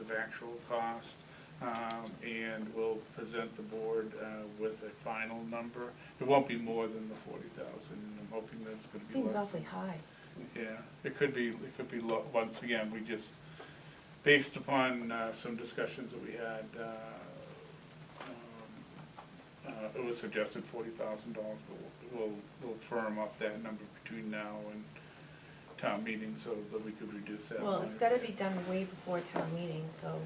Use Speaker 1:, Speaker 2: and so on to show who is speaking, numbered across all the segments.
Speaker 1: of actual cost, um, and we'll present the board uh, with a final number. It won't be more than the forty thousand, I'm hoping that's gonna be less.
Speaker 2: Seems awfully high.
Speaker 1: Yeah, it could be, it could be, lo- once again, we just, based upon uh, some discussions that we had, uh, um, uh, it was suggested forty thousand dollars, but we'll, we'll- we'll firm up that number between now and town meeting so that we could reduce that.
Speaker 2: Well, it's
Speaker 1: by-
Speaker 2: gotta be done way before town meeting, so,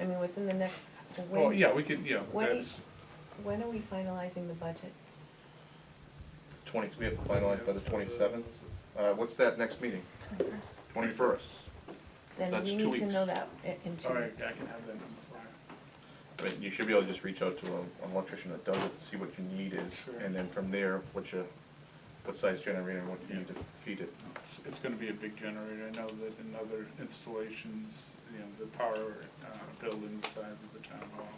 Speaker 2: I mean, within the next,
Speaker 1: Oh,
Speaker 2: when,
Speaker 1: yeah, we could, yeah,
Speaker 2: when do you-
Speaker 1: that's,
Speaker 2: when are we finalizing the budget?
Speaker 3: Twenty, we have to finalize by the twenty-seventh. Uh, what's that next meeting? Twenty-first.
Speaker 2: Then
Speaker 3: That's
Speaker 2: we
Speaker 3: two
Speaker 2: need to
Speaker 3: weeks.
Speaker 2: know that i- in two
Speaker 1: all right,
Speaker 2: weeks.
Speaker 1: I can have that number prior.
Speaker 3: I mean, you should be able to just reach out to a- an electrician that does it, see what your need is,
Speaker 1: Sure.
Speaker 3: and then from there, what you, what size generator and what you need to feed it.
Speaker 1: It's- It's gonna be a big generator, I know that in other installations, you know, the power uh, building the size of the town hall,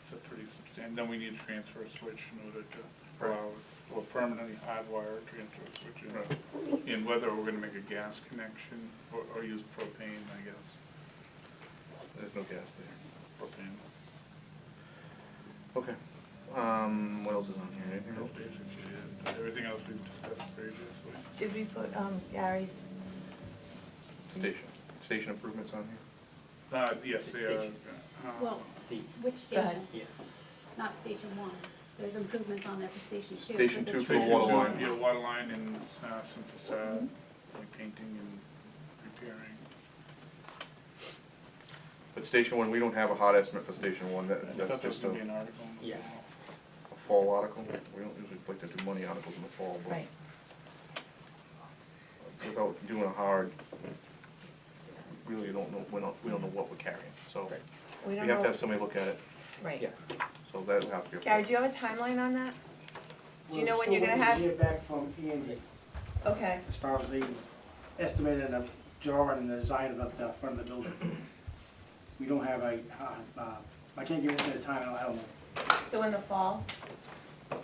Speaker 1: it's a pretty substantial, then we need a transfer switch in order to allow, or permanently hardwire a transfer switch in. And whether we're gonna make a gas connection or, or use propane, I guess,
Speaker 3: There's no gas there.
Speaker 1: propane,
Speaker 3: Okay. Um, what else is on here? Anything
Speaker 1: that's
Speaker 3: else?
Speaker 1: basically it. Everything else we discussed previously.
Speaker 2: Did we put, um, Gary's,
Speaker 3: Station, station improvements on here?
Speaker 1: Uh, yes, they are.
Speaker 4: Station.
Speaker 1: uh,
Speaker 5: Well, which
Speaker 2: Go ahead.
Speaker 5: station?
Speaker 4: Yeah,
Speaker 5: It's not station one. There's improvements on there for station two.
Speaker 3: Station
Speaker 5: for the
Speaker 3: two for
Speaker 1: Station
Speaker 3: the
Speaker 5: train.
Speaker 3: water line.
Speaker 1: Yeah, water line and uh, some facade, like painting and repairing.
Speaker 3: But station one, we don't have a hot estimate for station one, that,
Speaker 1: I thought
Speaker 3: that's
Speaker 1: there was
Speaker 3: just a,
Speaker 1: gonna be an
Speaker 3: a
Speaker 1: article. in the
Speaker 4: Yeah.
Speaker 1: journal.
Speaker 3: fall article. We don't usually like to do money articles in the fall, but.
Speaker 2: right,
Speaker 3: without doing a hard, really don't know, we don't, we don't know what we're carrying, so.
Speaker 4: Right.
Speaker 2: we
Speaker 3: We
Speaker 2: don't
Speaker 3: have to
Speaker 2: know,
Speaker 3: have somebody look at it,
Speaker 4: yeah.
Speaker 2: right.
Speaker 3: so that'll have to be.
Speaker 2: Gary, do you have a timeline on that? Do you know when you're gonna have-
Speaker 6: We're still waiting to hear back from Andy
Speaker 2: Okay,
Speaker 6: as far as the estimate and the drawing and the design of the, the front of the building. We don't have a, uh, uh, I can't give you the time, I don't- I don't know.
Speaker 2: so in the fall?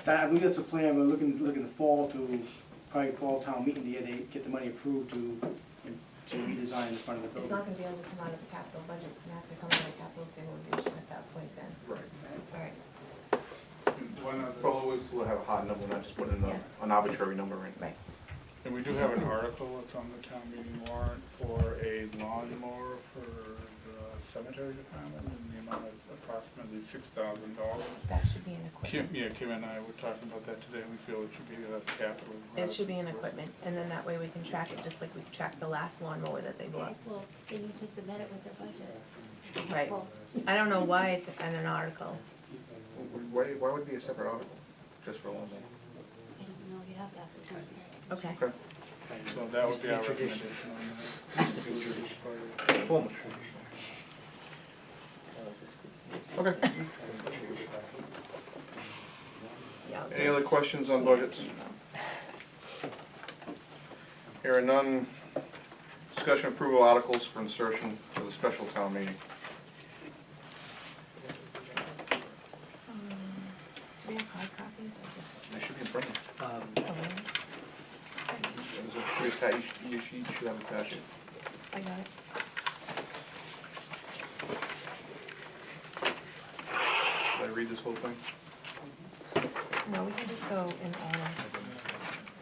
Speaker 6: That, I believe that's the plan, we're looking, looking to fall to, probably fall town meeting to get, a- get the money approved to, to redesign the front of the
Speaker 2: It's
Speaker 6: building.
Speaker 2: not gonna be able to come out of the capital budget, it's gonna have to come out of capital stabilization at that point then,
Speaker 3: Right.
Speaker 2: all right,
Speaker 1: And One other,
Speaker 3: Well, we'll have a hard number, not just put in
Speaker 2: Yeah.
Speaker 3: a- an arbitrary number in.
Speaker 2: right.
Speaker 1: and we do have an article that's on the town meeting warrant for a lawnmower for the cemetery department in the amount of approximately six thousand dollars.
Speaker 2: That should be in
Speaker 1: Kim,
Speaker 2: equipment.
Speaker 1: yeah, Kim and I were talking about that today, we feel it should be a capital.
Speaker 2: It should be in equipment, and then that way we can track it, just like we tracked the last lawnmower that they bought.
Speaker 5: Well, they need to submit it with their budget.
Speaker 2: Right.
Speaker 5: Well,
Speaker 2: I don't know why it's in an article.
Speaker 3: Why, why would it be a separate article, just for one day?
Speaker 5: I don't know, you have to ask the secretary.
Speaker 2: Okay.
Speaker 3: Okay.
Speaker 1: So that would be our
Speaker 4: Used to be tradition.
Speaker 1: recommendation on that.
Speaker 3: Formal.
Speaker 4: Uh,
Speaker 3: Okay.
Speaker 2: Yeah, I was
Speaker 3: Any
Speaker 2: gonna
Speaker 3: other
Speaker 2: s-
Speaker 3: questions on budgets? Here are none. Discussion approval articles for insertion to the special town meeting.
Speaker 2: Um, Do we have hard copies or
Speaker 3: They should be in front of you.
Speaker 4: Um,
Speaker 2: just? oh, really?
Speaker 3: There's a- should atta- You should- you should, you should have attached it.
Speaker 2: I got it.
Speaker 3: Should I read this whole thing?
Speaker 2: No, we can just go in order.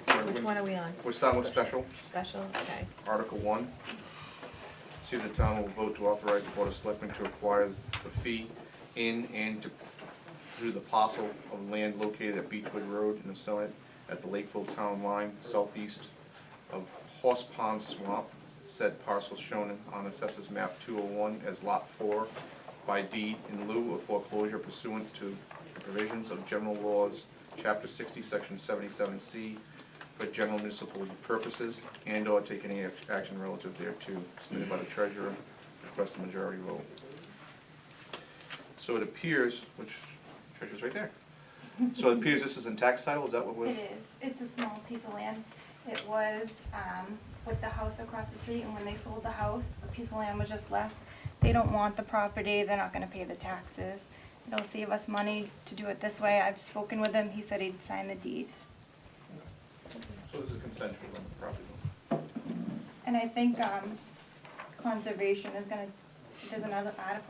Speaker 3: Or
Speaker 2: Which
Speaker 3: we-
Speaker 2: one are we on?
Speaker 3: We're starting with special,
Speaker 2: Special, okay.
Speaker 3: Article One. See if the town will vote to authorize the Board of Selectmen to acquire the fee in and to, through the parcel of land located at Beechwood Road in Assonet at the Lakeville Town Line southeast of Horse Pond Swamp. Said parcel shown on assessors map two oh one as lot four by deed in lieu of foreclosure pursuant to the provisions of general laws, chapter sixty, section seventy-seven C, for general municipal purposes and/or take any ac- action relative thereto submitted by the treasurer, request a majority vote. So it appears, which, treasurer's right there. So it appears this is in tax title, is that what
Speaker 7: It
Speaker 3: we're?
Speaker 7: is. It's a small piece of land. It was um, with the house across the street, and when they sold the house, the piece of land was just left. They don't want the property, they're not gonna pay the taxes. It'll save us money to do it this way. I've spoken with him, he said he'd sign the deed.
Speaker 3: So this is consensual on the property.
Speaker 7: And I think um, conservation is gonna there's another article